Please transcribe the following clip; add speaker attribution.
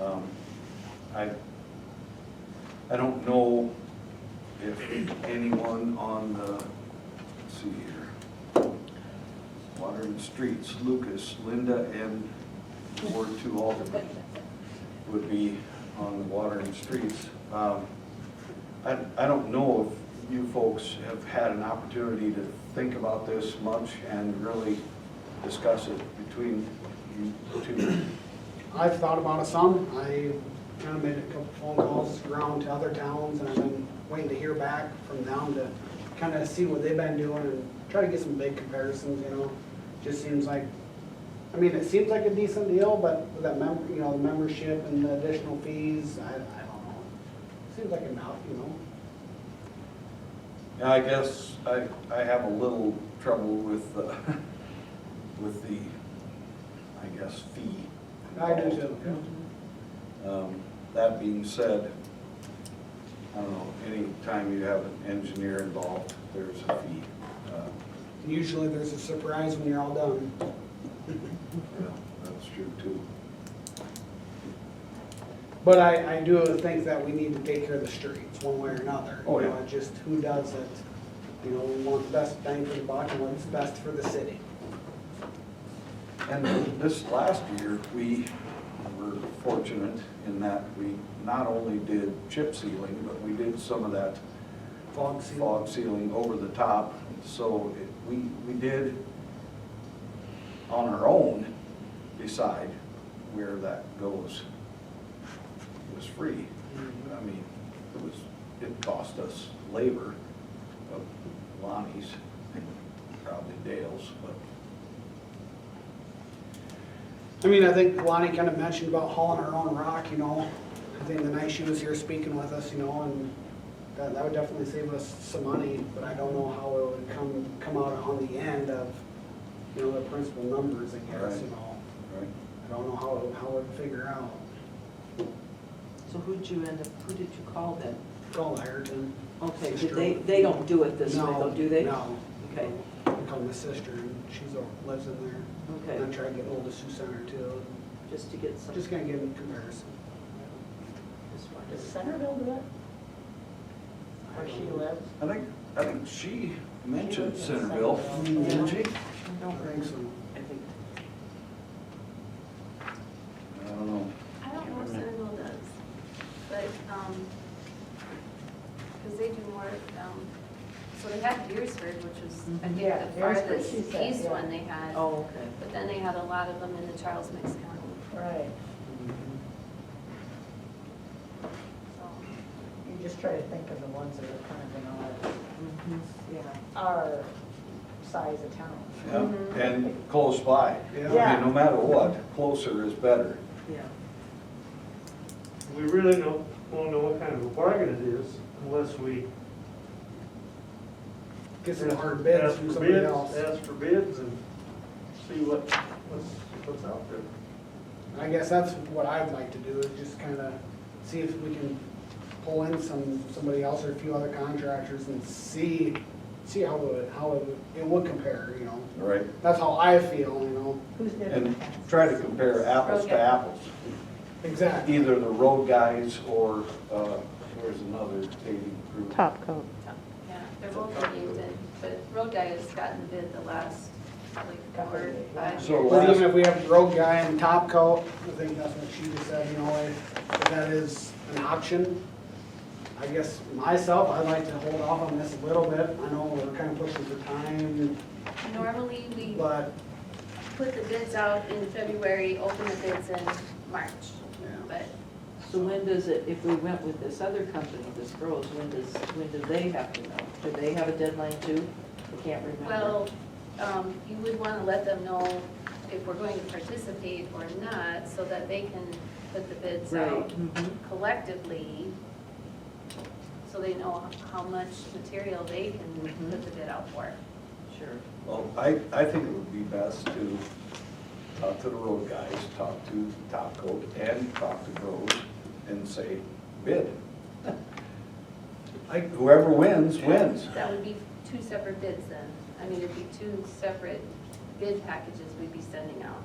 Speaker 1: Um, I, I don't know if anyone on the, let's see here. Water and Streets, Lucas, Linda, and Ward Two Alderman would be on the Water and Streets. Um, I, I don't know if you folks have had an opportunity to think about this much and really discuss it between you two.
Speaker 2: I've thought about it some. I kind of made a couple phone calls around to other towns and I've been waiting to hear back from them to kind of see what they've been doing and try to get some big comparisons, you know? Just seems like, I mean, it seems like a decent deal, but with that mem, you know, the membership and the additional fees, I, I don't know. Seems like enough, you know?
Speaker 1: Yeah, I guess I, I have a little trouble with, uh, with the, I guess, fee.
Speaker 2: I do too.
Speaker 1: Um, That being said, I don't know, anytime you have an engineer involved, there's a fee. Uh,
Speaker 2: And usually there's a surprise when you're all done.
Speaker 1: yeah, That's true too.
Speaker 2: But I, I do think that we need to take care of the streets one way or another.
Speaker 1: Oh,
Speaker 2: You
Speaker 1: yeah.
Speaker 2: know, Just who does it, you know, we want the best bang for the buck and what's best for the city.
Speaker 1: And this last year, we were fortunate in that we not only did chip sealing, but we did some of that
Speaker 2: Fog seal.
Speaker 1: fog ceiling over the top. So it- we, we did on our own decide where that goes. It was free. I mean, it was, it cost us labor of Lonnie's and probably Dale's, but
Speaker 2: I mean, I think Lonnie kind of mentioned about hauling our own rock, you know, I think the night she was here speaking with us, you know, and that, that would definitely save us some money, but I don't know how it would come, come out on the end of, you know, the principal numbers, I guess, you
Speaker 1: Right.
Speaker 2: know.
Speaker 1: right?
Speaker 2: I don't know how, it- how it would figure out.
Speaker 3: So who'd you end up, who did you call then?
Speaker 2: Call Ireton.
Speaker 3: Okay, did they, they don't do it this way, though, do they?
Speaker 2: No.
Speaker 3: Okay.
Speaker 2: I called my sister, and she's, a- lives in there. And I'm
Speaker 3: Okay,
Speaker 2: trying to get hold of Sue Center too.
Speaker 3: just to get some.
Speaker 2: Just gonna give them comparison.
Speaker 3: Just wanted
Speaker 4: Does
Speaker 3: to-
Speaker 4: Centerville do it? Where she lives?
Speaker 1: I think, I think she mentioned
Speaker 4: She lives in
Speaker 1: Centerville,
Speaker 4: Centerville.
Speaker 1: didn't she?
Speaker 3: I
Speaker 2: I
Speaker 3: don't
Speaker 2: think so.
Speaker 3: I think,
Speaker 1: I don't know.
Speaker 5: I don't know if Centerville does, but, um 'cause because they do more, um, so they had Deersford, which was, I think,
Speaker 4: Yeah,
Speaker 5: the
Speaker 4: Deersford,
Speaker 5: farthest
Speaker 4: she said,
Speaker 5: east
Speaker 4: yeah.
Speaker 5: one they had.
Speaker 3: oh, okay.
Speaker 5: But then they had a lot of them in the Charles Mix County,
Speaker 4: Right.
Speaker 5: so.
Speaker 4: You just try to think of the ones that are kind of
Speaker 3: Mhm.
Speaker 4: in our, our size of town.
Speaker 1: Yeah, and close by. I mean,
Speaker 4: Yeah.
Speaker 1: no matter what, closer is better.
Speaker 3: Yeah,
Speaker 6: We really don't, won't know what kind of a bargain it is unless we.
Speaker 2: Get some hard bids
Speaker 6: ask
Speaker 2: from
Speaker 6: for
Speaker 2: somebody
Speaker 6: bids,
Speaker 2: else.
Speaker 6: Ask for bids and see what, what's, what's out there.
Speaker 2: I guess that's what I'd like to do, is just kinda see if we can pull in some, somebody else or a few other contractors and see, see how it, how it, it would compare, you know?
Speaker 1: Right.
Speaker 2: That's how I feel, you know?
Speaker 4: Who's did
Speaker 1: And
Speaker 4: it?
Speaker 1: try to compare apples to
Speaker 5: Okay.
Speaker 1: apples,
Speaker 2: Exactly.
Speaker 1: either the road guys or, uh, there's another paving crew.
Speaker 7: Top coat.
Speaker 5: Yeah, they're both oriented, but Road Guy has gotten bid the last, like,
Speaker 4: Couple
Speaker 5: four,
Speaker 4: years, yeah.
Speaker 5: five.
Speaker 1: So
Speaker 5: years.
Speaker 2: But even if we have rogue guy and top coat, I think that's what she just said, you know, if if that is an option. I guess myself, I'd like to hold off on this a little bit. I know we're kind of pushing for time,
Speaker 5: Normally, we
Speaker 2: but,
Speaker 5: put the bids out in February, open the bids in March,
Speaker 2: yeah.
Speaker 5: but
Speaker 3: so when does it, if we went with this other company, this Groves, when does, when do they have to know? Do they have a deadline too? I can't remember.
Speaker 5: Well, um, you would want to let them know if we're going to participate or not, so that they can put the bids
Speaker 3: Right,
Speaker 5: out
Speaker 3: mhm,
Speaker 5: collectively, so they know how much material they can
Speaker 3: Mhm.
Speaker 5: put the bid out for.
Speaker 3: sure.
Speaker 1: Well, I, I think it would be best to talk to the road guys, talk to Top Coat and talk to Groves and say bid. Like whoever wins, wins.
Speaker 5: That would be two separate bids then. I mean, it'd be two separate bid packages we'd be sending out.